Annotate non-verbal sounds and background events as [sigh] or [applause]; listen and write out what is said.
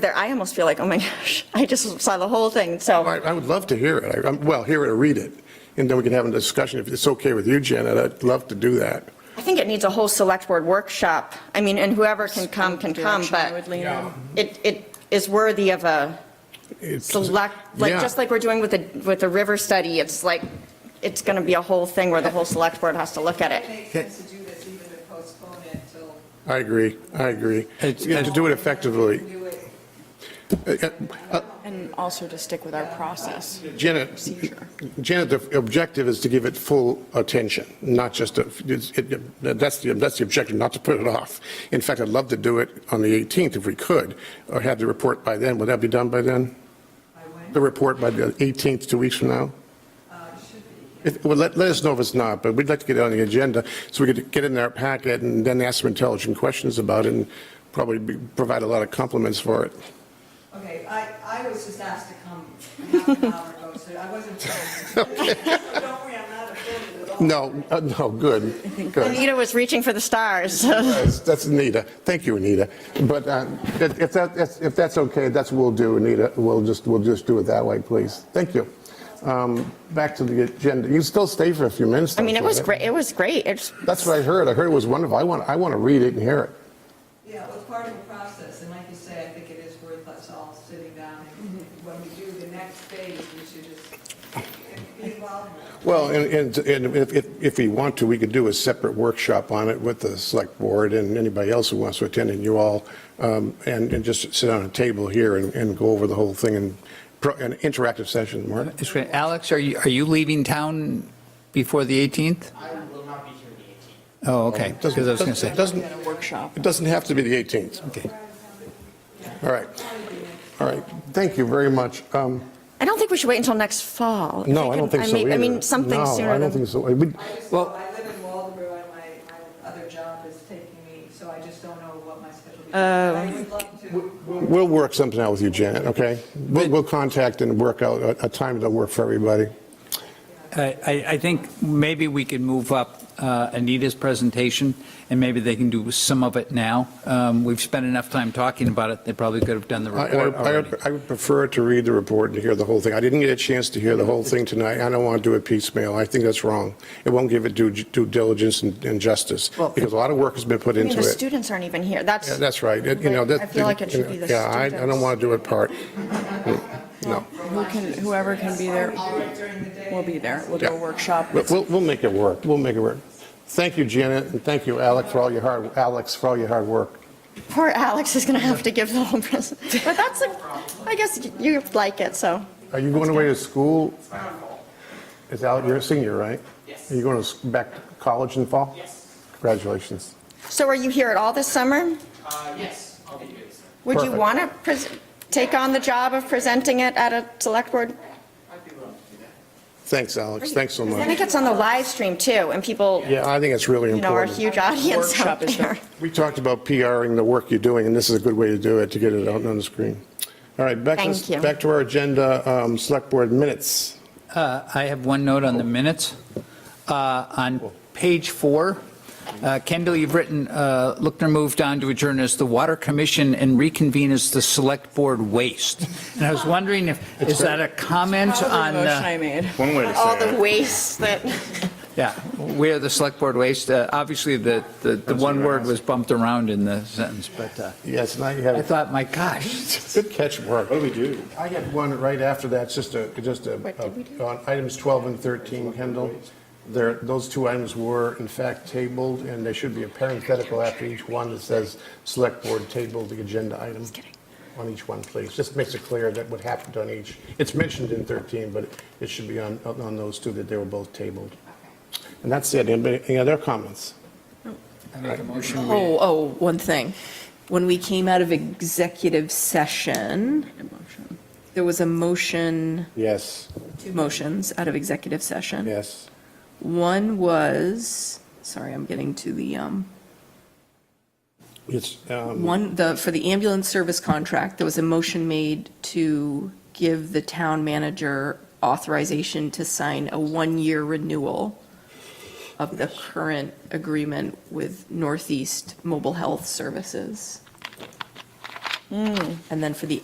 there, I almost feel like, oh my gosh, [laughs] I just saw the whole thing, so, Oh, I, I would love to hear it. I- I'm- Well, hear it or read it, and then we can have a discussion. If it's okay with you, Janet, I'd love to do that. I think it needs a whole select board workshop. I mean, and whoever can come, can come, Direction I would but lean on. it, it is worthy of a It's- select, like, Yeah. just like we're doing with the, with the river study, it's like, it's going to be a whole thing where the whole select board has to look at It it. makes sense to do this, even to postpone it till I agree, I agree. And It's- to do it effectively. do it. Uh, uh, And also to stick with our process. Janet, Seizure. Janet, the objective is to give it full attention, not just, a- it's- it- that's the, that's the objective, not to put it off. In fact, I'd love to do it on the 18th if we could, or have the report by then. Would that be done by then? I went, The report by the 18th, two weeks from now? uh, should be. If- Well, let, let us know if it's not, but we'd like to get it on the agenda so we could get it in our packet and then ask some intelligent questions about it and probably be- provide a lot of compliments for it. Okay, I, I was just asked to come half an hour ago, so I wasn't. [laughs] Don't worry, I'm not offended at all. No, uh, no, [laughs] good, good. Anita was reaching for the stars. [laughs] That's that's Anita. Thank you, Anita. But uh, if if that, that's- if that's okay, that's what we'll do, Anita. We'll just, we'll just do it that way, please. Thank you. Um, Back to the agenda. You still stay for a few minutes. I mean, it though, was right? great, it was great, it's, That's what I heard. I heard it was wonderful. I want, I want to read it and hear it. Yeah, well, it's part of the process, and like you say, I think it is worth us all sitting down, and when we do the next phase, we should just be involved. in it. Well, and, and and if, if- if we want to, we could do a separate workshop on it with the select board and anybody else who wants to attend, and you all, um, and, and just sit on a table here and, and go over the whole thing in pro- an interactive session, Mark. It's great. Alex, are you, are you leaving town before the 18th? I will not be here the Oh, okay, because I was going to say. It doesn't, At a workshop. it doesn't have to be the 18th. Okay. All right. All right. Thank you very much. Um, I don't think we should wait until next fall. No, I don't think so mean- either. I mean, something No, sooner I don't than, think so. We- I just, Well- I live in Waldeboro, and my, my other job is taking me, so I just don't know what my schedule is. I would love to. We'll work something out with you, Janet, okay? We'll, we'll contact and work out a, a time that'll work for everybody. I, I- I think maybe we could move up uh, Anita's presentation, and maybe they can do some of it now. Um, We've spent enough time talking about it, they probably could have done the I- report I already. I- I would prefer to read the report and hear the whole thing. I didn't get a chance to hear the whole thing tonight. I don't want to do it piecemeal. I think that's wrong. It won't give it due due diligence and and justice, because a lot of work has been put I mean, into the it. students aren't even here, that's. Yeah, That's right. It- You know, that. I feel like it should be the Yeah, I I don't students. want to do it part. Mm, No. Who can, whoever can be there will be there. We'll do a Yeah. workshop. But We'll, we'll make it work. We'll make it work. Thank you, Janet, and thank you, Alec, for all your hard, Alex, for all your hard work. Poor Alex is going to have to give the whole present. But that's, a- I guess you like it, so. Are you going away to school? 18th. Final call. Is Alec, you're a senior, right? Yes. Are you going to s- back to college in the fall? Yes. Congratulations. So are you here at all this summer? Uh, yes, I'll be here this time. Would you Perfect. want to take on the job of presenting it at a select board? I'd be willing to do that. Thanks, Alex. Thanks so I much. think it's on the live stream too, and people, you Yeah, I think it's really know, are a important. huge audience out Workshop is there. [laughs] We talked about PRing the work you're doing, and this is a good way to do it, to get it out on the screen. All right, back Thank to, you. back to our agenda, um, select board minutes. Uh, I have one note on the minutes. Uh, On page four, uh, Kendall, you've written, uh, Lookner moved on to adjourn as the Water Commission and reconvene as the Select Board Waste. And I was wondering if, is that a comment on, Probably a motion uh, I made. One way to All say the it, waste that, yeah, where the Select Board Waste? Uh, Obviously, the, the the one word was bumped around in the sentence, but uh, Yes, now you I have, thought, my [laughs] gosh, good catch, Mark. what do we do? I got one right after that, it's just a, just a, on items 12 and 13, Kendall. There, those two items were in fact tabled, and there should be a parenthetical after each one that says, "Select Board tabled the agenda item." On each one, please. Just makes it clear that what happened on each. It's mentioned in 13, but it should be on, on those two that they were both tabled. And that's it. Anybody- Any other comments? I make a motion, we- Oh, oh, one thing. When we came out of executive session, there was a motion, Yes, two motions out of executive session. yes. One was, sorry, I'm getting to the, um, It's, um, one, the, for the ambulance service contract, there was a motion made to give the town manager authorization to sign a one-year renewal of the current agreement with Northeast Mobile Health Services. And then for the